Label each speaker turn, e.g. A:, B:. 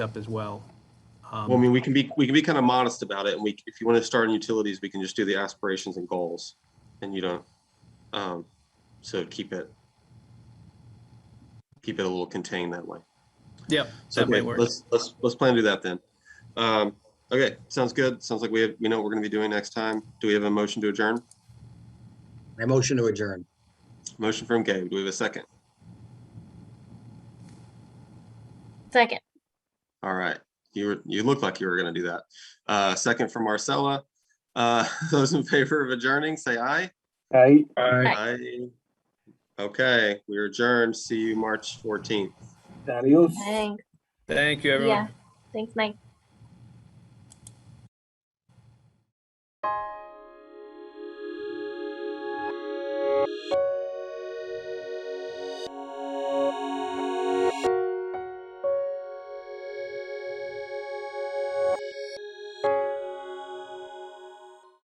A: up as well. Um,
B: Well, I mean, we can be, we can be kind of modest about it, and we, if you want to start in utilities, we can just do the aspirations and goals, and you don't, um, so keep it, keep it a little contained that way.
A: Yep,
B: So,
A: that
B: okay,
A: might work.
B: let's, let's, let's plan to do that then. Um, okay, sounds good, sounds like we have, we know what we're gonna be doing next time. Do we have a motion to adjourn?
C: I motion to adjourn.
B: Motion from Gabe, do we have a second?
D: Second.
B: All right, you were, you looked like you were gonna do that. Uh, second from Marcella. Uh, those in favor of adjourning, say aye.
E: Aye.
B: Aye. Okay, we are adjourned. See you March fourteenth.
E: Adios.
D: Thanks.
A: Thank you, everyone.
D: Yeah. Thanks, Mike.